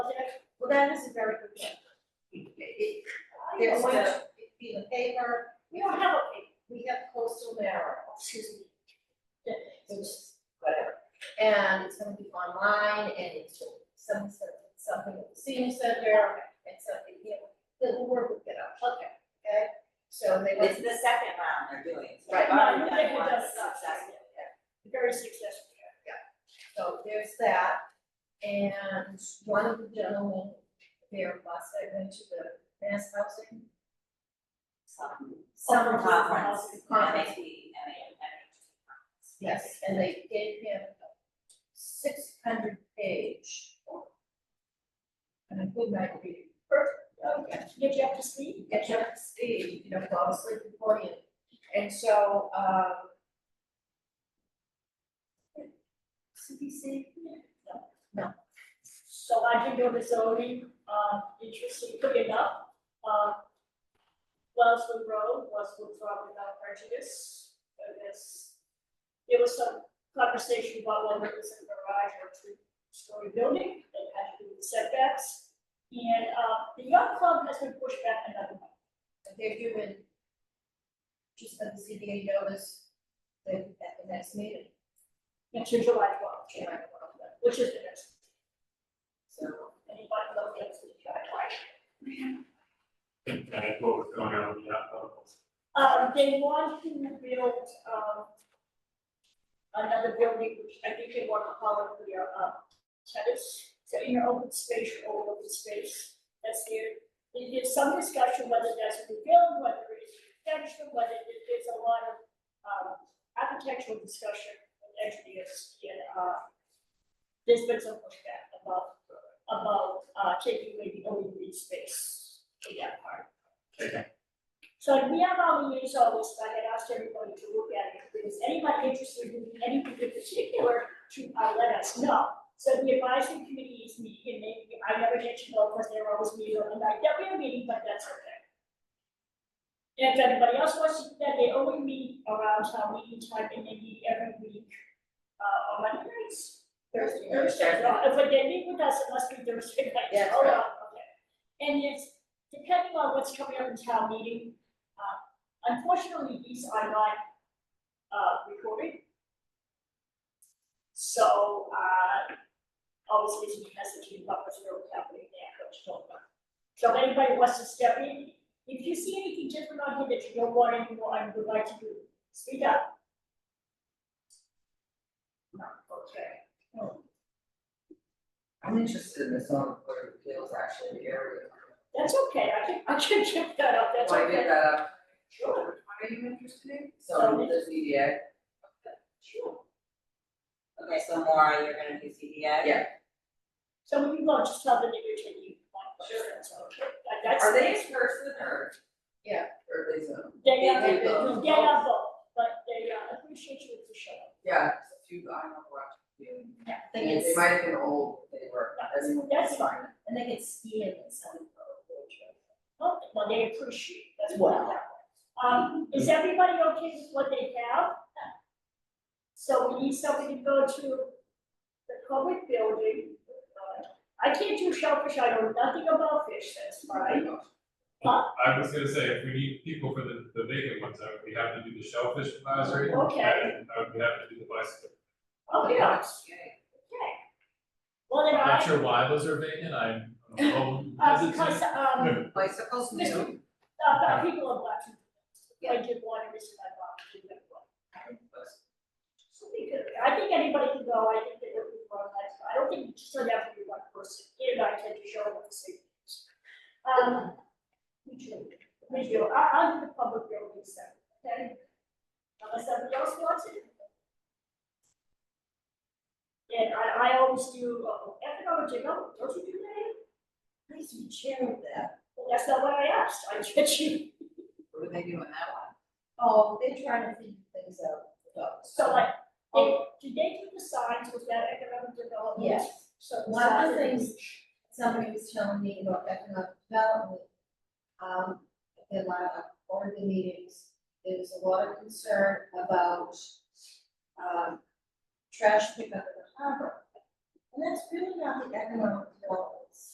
that is a very good thing. It- it- They're going to be in the paper, we don't have a paper, we have coastal narrow, excuse me. Yeah, it's Whatever, and it's gonna be online, and it's some, some- something at the senior center, and something, you know, the work will get up, okay, okay? So they. It's the second round they're doing. so Right. I've already Right. done one Right. successful. very successful, yeah. So there's that, and one of the gentlemen there last night went to the mass housing. um, Some- summer some Conference, Oh, Conference, MAP, MAP. yes, and they gave him a six hundred page. And a good night reading. Perfect. Get you up Oh, to speed? Get you up to speed, you know, fall asleep before you, and so, um. CPC? So I can go to zoning, um, interesting, quick enough, um. Wellswood Road, Wellswood Road without prejudice, I guess. There was some conversation about whether it was a garage or two-story building, it had to do with setbacks. And, uh, the yacht club has been pushed back another month. They're doing, just sent the CBA notice, they, at the next meeting, into July twelfth, July July, twelfth. which is the next, So, anybody love that, it's the July. And that's what was going on with that bubble. Um, they want him to build, um, another building, which I think they want to call it their, uh, tennis, so inner open space or all open space, that's there. There- There's some discussion whether that's a new build, whether it's extension, whether it- there's a lot of, um, architectural discussion with engineers and, uh, there's been some pushback about, about, uh, taking maybe only green space in that part. Okay. So we have all the news all this, I had asked everybody to look at it, if there's anybody interested in anything in particular, to uh let us know. So the advisory committee is meeting, and they, I never get to know, because they're always meeting on the night that we're meeting, but that's okay. And if anybody else wants to, do that they only meet around town meeting time, and they meet every week, uh, on Monday nights. Thursday. Thursday, no, if they meet with us, it must be Thursday night, That's hold right. on, okay. And it's, depending on what's coming up in town meeting, uh, unfortunately, these are not, uh, recorded. So, uh, obviously, he has to keep up with what's happening there, Coach Tolman. So if anybody wants to step in, if you see anything different on here that you don't want anymore and would like to do, speak up. No, okay. No, I'm interested in the zoning board of appeals actually, the area. That's okay, I can, I can check that out, that's Why give okay. that up? Sure, Are you interested in? So- So the ZBA, sure. Okay, so Maura, you're gonna do CDA? yeah. So we can go, just tell the nigger to you. Sure. That's okay, That- that's. Are they in person or? Yeah. Or are they Zoom? They are, they vote? they are both, but they uh, appreciate you if you show up. Yeah, it's a few, I don't know, we're up to you. I think They it's, might have been old, but they were. That's- that's fine. I think it's skiing and something. Oh, well, they appreciate, that's what I have. Um, is everybody okay with what they have? So we need somebody to go to the public building. Uh, I can't do shellfish, I know nothing about fish, that's fine. Huh? I was gonna say, if we need people for the, the vacant ones, I would be happy to do the shellfish advisory. Oh, Okay. And I would be happy to do the bicycle. Oh, yeah, okay. Well, then I'm not I, sure why those are vacant, I'm, I'm a little uh, hesitant. because, um, Bicycles new, Uh, but people are watching. I did one, I missed my box, I did that one. So we could, I think anybody can go, I think that would be one nice, I don't think you just don't have to be one person, you and I tend to show up the same. things. Um, we do, we do, I, I'm in the public building sector, okay? Unless somebody else wants it. And I, I always do, uh, economic development, don't you do that? Nice to be chairing that. Well, that's not what I asked, I get you. what are they doing that Oh, they're trying to figure things out. So like, they, did they do the signs with that economic development? Oh. Yes, So the One of the signs- things- somebody was telling me about economic development. Um, in my, one of the meetings, there was a lot of concern about, um, trash pickup in the harbor. And that's really not the economic development